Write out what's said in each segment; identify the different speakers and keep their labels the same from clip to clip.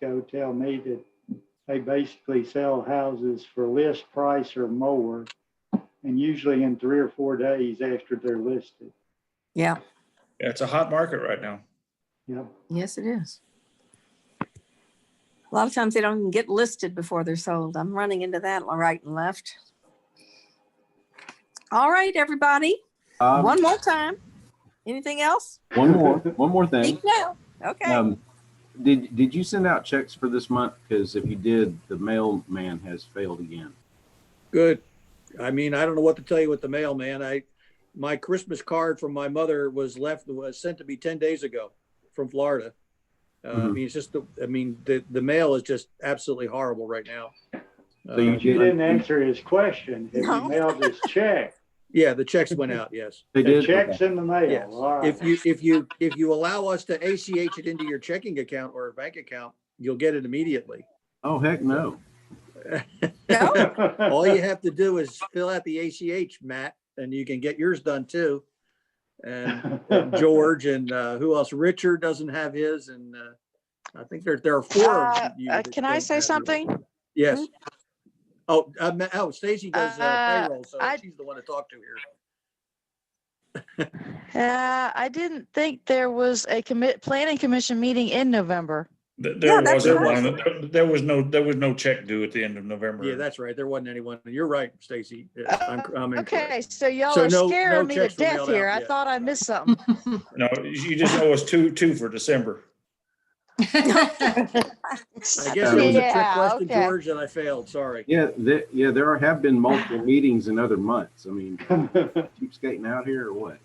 Speaker 1: ago tell me that they basically sell houses for list price or more, and usually in three or four days after they're listed.
Speaker 2: Yeah,
Speaker 3: Yeah, it's a hot market right now.
Speaker 1: Yep.
Speaker 2: yes, it is. A lot of times they don't even get listed before they're sold. I'm running into that right and left. All right, everybody,
Speaker 4: Um,
Speaker 2: one more time. Anything else?
Speaker 4: One more, one more thing.
Speaker 2: Speak now. Okay,
Speaker 4: Um, did, did you send out checks for this month? Because if you did, the mailman has failed again.
Speaker 5: Good. I mean, I don't know what to tell you with the mail, man. I, my Christmas card from my mother was left, was sent to me ten days ago from Florida. Uh, I
Speaker 4: Mhm.
Speaker 5: mean, it's just, the- I mean, the, the mail is just absolutely horrible right now.
Speaker 4: So you
Speaker 5: Uh,
Speaker 1: You didn't answer his question. If
Speaker 2: No.
Speaker 1: you mailed his check,
Speaker 5: Yeah, the checks went out, yes.
Speaker 4: They
Speaker 1: the
Speaker 4: did?
Speaker 1: check's in the
Speaker 5: Yes.
Speaker 1: mail. All right.
Speaker 5: If you, if you, if you allow us to ACH it into your checking account or a bank account, you'll get it immediately.
Speaker 4: Oh, heck no.
Speaker 2: no,
Speaker 5: All
Speaker 4: Oh,
Speaker 5: you have to do is fill out the ACH, Matt, and you can get yours done too. And and George and uh, who else? Richard doesn't have his, and uh, I think there there are four.
Speaker 6: Uh,
Speaker 5: of you
Speaker 6: uh,
Speaker 5: that
Speaker 6: Can I
Speaker 5: don't have
Speaker 6: say
Speaker 5: yours.
Speaker 6: something? Hmm?
Speaker 5: Yes. Oh, uh, Ma- oh, Stacy does uh,
Speaker 6: Uh,
Speaker 5: payroll, so
Speaker 6: I-
Speaker 5: she's the one to talk to here.
Speaker 6: Uh, I didn't think there was a commit, planning commission meeting in November.
Speaker 3: Th-
Speaker 2: Yeah,
Speaker 3: There
Speaker 2: that's
Speaker 3: wasn't
Speaker 2: right.
Speaker 3: one, there- there was no, there was no check due at the end of November.
Speaker 5: Yeah, that's right. There wasn't anyone. You're right, Stacy. Yeah, I'm, I'm incorrect.
Speaker 6: Oh, Okay, so y'all
Speaker 5: So
Speaker 6: are
Speaker 5: no- no
Speaker 6: scaring me to
Speaker 5: checks were
Speaker 6: death
Speaker 5: mailed out
Speaker 6: here. I
Speaker 5: yet.
Speaker 6: thought I missed something.
Speaker 3: No, you just owe us two, two for December.
Speaker 5: I guess it was a trick
Speaker 6: Yeah,
Speaker 5: question,
Speaker 6: okay.
Speaker 5: George, and I failed. Sorry.
Speaker 4: Yeah, there, yeah, there are- have been multiple meetings in other months. I mean, keep skating out here or what?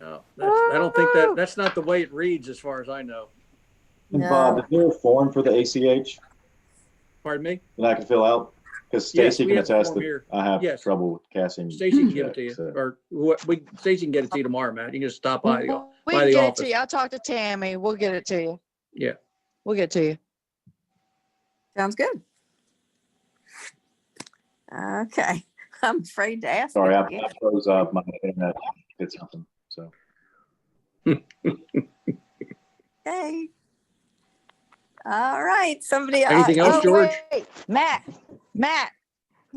Speaker 5: No, that's, I don't think that
Speaker 6: Woo!
Speaker 5: that's not the way it reads, as far as I know.
Speaker 7: And Bob,
Speaker 2: No.
Speaker 7: is there a form for the ACH
Speaker 5: Pardon me.
Speaker 7: that I can fill out? Because
Speaker 5: Yes,
Speaker 7: Stacy
Speaker 5: we
Speaker 7: can
Speaker 5: have the
Speaker 7: attest
Speaker 5: form
Speaker 7: that
Speaker 5: here.
Speaker 7: I have
Speaker 5: Yes.
Speaker 7: trouble with casting.
Speaker 5: Stacy can give it to you,
Speaker 7: checks, so-
Speaker 5: or what? We Stacy can get it to you tomorrow, Matt. You can just stop by. the
Speaker 6: We
Speaker 5: by the
Speaker 6: can get it
Speaker 5: office.
Speaker 6: to you. I'll talk to Tammy. We'll get it to you.
Speaker 5: Yeah.
Speaker 6: We'll get it to you.
Speaker 2: sounds good. Okay, I'm afraid to ask.
Speaker 7: Sorry, I
Speaker 2: again.
Speaker 7: I froze up my internet, did something, so.
Speaker 2: Okay. All right, somebody. uh,
Speaker 5: Anything else,
Speaker 2: oh,
Speaker 6: Oh,
Speaker 5: George?
Speaker 6: wait, Matt, Matt,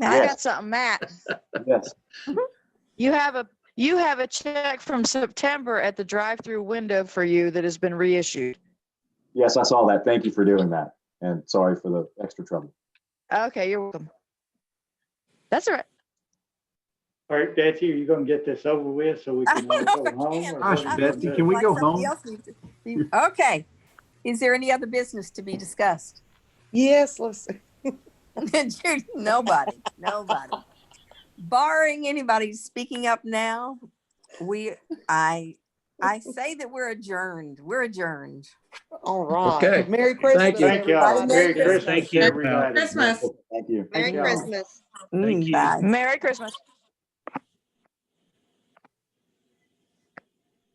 Speaker 6: I
Speaker 2: Matt,
Speaker 6: got something, Matt.
Speaker 7: Yes,
Speaker 6: You have a, you have a check from September at the drive-through window for you that has been reissued.
Speaker 7: yes, I saw that. Thank you for doing that. And sorry for the extra trouble.
Speaker 6: Okay, you're welcome. That's all right.
Speaker 1: All right, Betsy, are you gonna get this over with so we
Speaker 2: I
Speaker 1: can all
Speaker 2: don't
Speaker 1: go
Speaker 2: know if I
Speaker 1: home?
Speaker 2: can.
Speaker 1: or
Speaker 4: Gosh,
Speaker 1: what do you
Speaker 4: Betsy,
Speaker 1: do?
Speaker 4: can we
Speaker 2: like
Speaker 4: go
Speaker 2: somebody
Speaker 4: home?
Speaker 2: else needs to be- Okay. Is there any other business to be discussed?
Speaker 8: Yes, let's,
Speaker 2: Judy, Nobody, nobody. Barring anybody speaking up now, we, I, I say that we're adjourned. We're adjourned.
Speaker 8: all right.
Speaker 5: Okay.
Speaker 8: Merry Christmas.
Speaker 5: Thank you.
Speaker 1: Thank y'all.
Speaker 8: everybody.
Speaker 1: Merry
Speaker 2: Thank you.
Speaker 1: Christmas,
Speaker 3: Thank you.
Speaker 1: everybody.
Speaker 9: Christmas.
Speaker 7: Thank you.
Speaker 9: Merry
Speaker 1: Yeah.
Speaker 9: Christmas.
Speaker 2: Mm,
Speaker 3: you.
Speaker 2: bye.
Speaker 6: Merry Christmas.